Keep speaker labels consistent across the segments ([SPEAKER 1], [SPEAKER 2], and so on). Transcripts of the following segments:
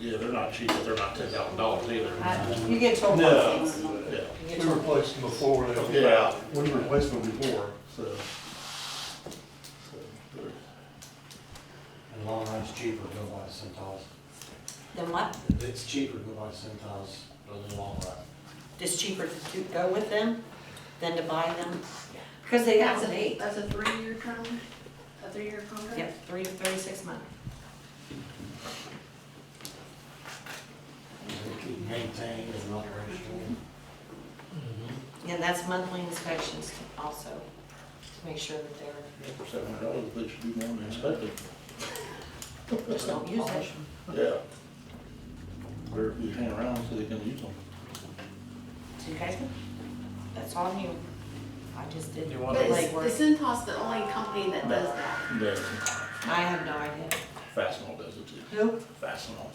[SPEAKER 1] Yeah, they're not cheap, but they're not ten thousand dollars either.
[SPEAKER 2] I- You get told
[SPEAKER 1] No.
[SPEAKER 2] things.
[SPEAKER 1] Yeah.
[SPEAKER 2] You get
[SPEAKER 3] We
[SPEAKER 2] told-
[SPEAKER 3] replaced them before they were
[SPEAKER 1] Yeah,
[SPEAKER 3] out.
[SPEAKER 1] we replaced them before, so. so,
[SPEAKER 4] In the long run, it's cheaper to go by the Centos.
[SPEAKER 2] Then what?
[SPEAKER 4] It's cheaper to go by the Centos in the long run.
[SPEAKER 2] It's cheaper to do- go with them than to buy them? Because they have
[SPEAKER 5] That's
[SPEAKER 2] a
[SPEAKER 5] a,
[SPEAKER 2] date.
[SPEAKER 5] that's a three-year term, a three-year contract?
[SPEAKER 2] Yep, three to thirty-six months.
[SPEAKER 4] They keep maintaining and operational.
[SPEAKER 2] And that's monthly inspections also, to make sure that they're,
[SPEAKER 1] yeah, For seven hundred dollars, they should do more than expected.
[SPEAKER 2] just don't use it.
[SPEAKER 1] Yeah. They're, you hang around so they can use them.
[SPEAKER 2] So you guys, that's on you. I just did
[SPEAKER 5] But it's,
[SPEAKER 2] legwork.
[SPEAKER 5] is Cintas the only company that does that?
[SPEAKER 1] Does,
[SPEAKER 2] I have no idea.
[SPEAKER 1] Fastenal does it too,
[SPEAKER 2] Who?
[SPEAKER 1] Fastenal,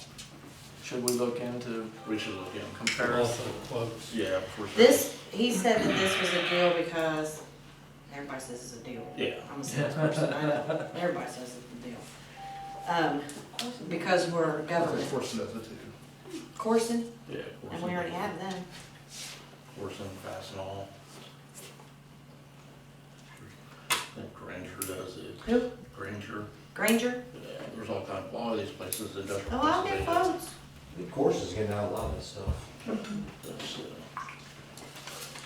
[SPEAKER 6] Should we look into
[SPEAKER 1] we should look in,
[SPEAKER 6] comparison quotes?
[SPEAKER 1] yeah, for sure.
[SPEAKER 2] This, he said that this was a deal because everybody says it's a deal.
[SPEAKER 1] Yeah.
[SPEAKER 2] I'm a salesperson, I know, everybody says it's a deal. Um, because we're government.
[SPEAKER 1] Corson does it too.
[SPEAKER 2] Corson,
[SPEAKER 1] Yeah.
[SPEAKER 2] and we already have them.
[SPEAKER 1] Corson, Fastenal. I think Granger does it,
[SPEAKER 2] Who?
[SPEAKER 1] Granger,
[SPEAKER 2] Granger?
[SPEAKER 1] yeah, there's all kind of, all these places, industrial.
[SPEAKER 2] Oh, I'll
[SPEAKER 1] places, they
[SPEAKER 2] get
[SPEAKER 1] do it.
[SPEAKER 2] quotes.
[SPEAKER 4] The course is getting out a lot of this stuff.
[SPEAKER 1] That's, uh,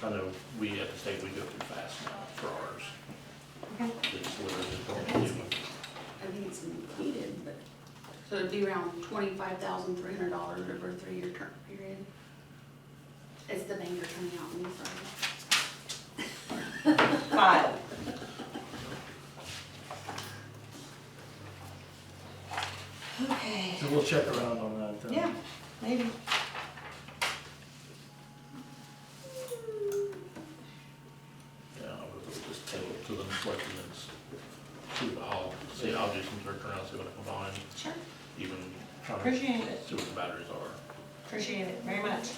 [SPEAKER 1] I know we at the state, we go through fast now for ours.
[SPEAKER 2] Okay.
[SPEAKER 1] It's literally just going to do it.
[SPEAKER 5] I think it's included, but, so it'd be around twenty-five thousand three hundred dollars over a three-year term period. It's the banker coming out on the side.
[SPEAKER 2] Five. Okay,
[SPEAKER 6] So we'll check around on that then.
[SPEAKER 2] yeah, maybe.
[SPEAKER 1] Yeah, we'll just table it to them, like, and then s- see what I'll, see, I'll do some search around, see what I can find,
[SPEAKER 2] Sure.
[SPEAKER 1] even trying to
[SPEAKER 2] Appreciate it,
[SPEAKER 1] see what the batteries are.
[SPEAKER 2] appreciate it very much.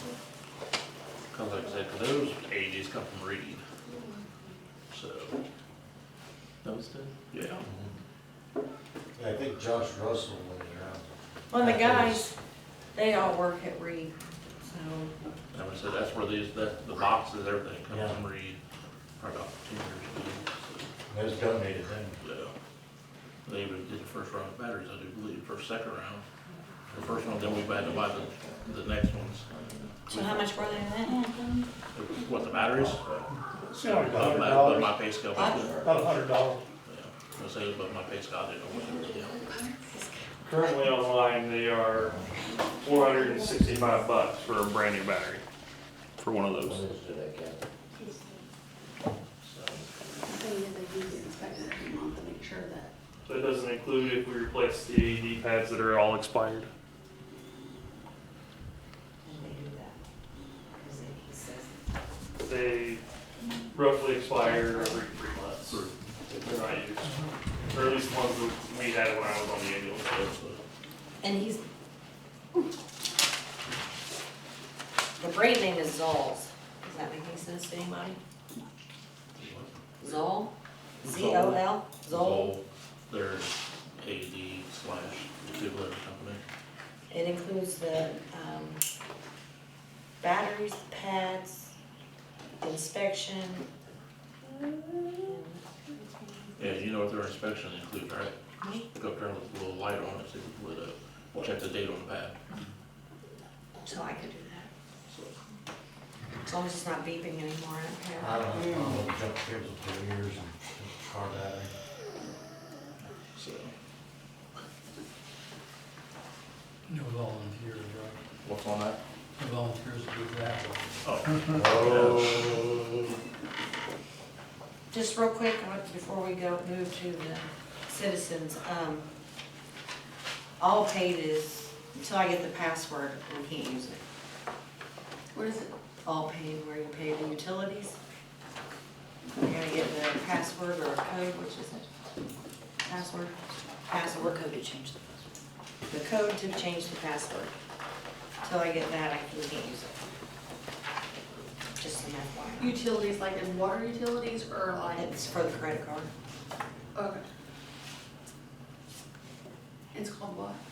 [SPEAKER 1] Cause like I said, 'cause those ages come from reading. So,
[SPEAKER 6] Those did?
[SPEAKER 1] yeah,
[SPEAKER 4] Yeah, I think Josh Russell went around.
[SPEAKER 2] Well, the guys, they all work at Reed, so,
[SPEAKER 1] and I said, that's where these, that, the boxes, everything comes from read, probably about ten years ago, so.
[SPEAKER 4] It was donated then.
[SPEAKER 1] Yeah. They even did the first round of batteries, I do believe, first, second round. The first one, then we had to buy the, the next ones.
[SPEAKER 2] so how much were they in that?
[SPEAKER 1] What, the batteries?
[SPEAKER 3] Yeah,
[SPEAKER 1] Above
[SPEAKER 3] about a hundred
[SPEAKER 1] my-
[SPEAKER 3] dollars.
[SPEAKER 1] above my pay scale.
[SPEAKER 2] What?
[SPEAKER 1] Yeah,
[SPEAKER 3] About a hundred dollars.
[SPEAKER 1] I was saying above my pay scale, I didn't know what they were.
[SPEAKER 7] Currently online, they are four hundred and sixty-five bucks for a brand new battery, for one of
[SPEAKER 4] When
[SPEAKER 7] those.
[SPEAKER 4] is it again?
[SPEAKER 5] The thing is, they do get inspected every month to make sure that
[SPEAKER 7] So it doesn't include if we replace the AED pads that are all expired.
[SPEAKER 2] And they do that. 'Cause he- he says-
[SPEAKER 7] They roughly expire every three months. if They're not used, or at least the ones that we had when I was on the ambulance.
[SPEAKER 2] And he's. The brand name is Zolls, does that make any sense to anybody? Zoll? Z O L, Zoll?
[SPEAKER 1] Zoll, Their AD slash defibrillator company.
[SPEAKER 2] It includes the, um, batteries, pads, inspection. and-
[SPEAKER 1] Yeah, you know what their inspection includes, right? Go up there with a little light on it, see if it lit up, check the date on the pad,
[SPEAKER 2] So I could do that,
[SPEAKER 1] so.
[SPEAKER 2] as long as it's not beeping anymore, I don't care.
[SPEAKER 4] I don't know, I don't jump kids for years and car battery.
[SPEAKER 1] So,
[SPEAKER 8] No volunteers, right?
[SPEAKER 1] what's on that?
[SPEAKER 8] No volunteers to do that.
[SPEAKER 1] Oh,
[SPEAKER 4] Oh.
[SPEAKER 2] Just real quick, I want- before we go, move to the citizens, um, all paid is, until I get the password, we can't use it.
[SPEAKER 5] What is it?
[SPEAKER 2] All paid, where you pay the utilities. You gotta get the password or code, which is it? Password? Password code to change the password. The code to change the password. Till I get that, I can- we can't use it. Just an FYI.
[SPEAKER 5] Utilities, like in water utilities or like?
[SPEAKER 2] It's for the credit card.
[SPEAKER 5] Okay. It's called what?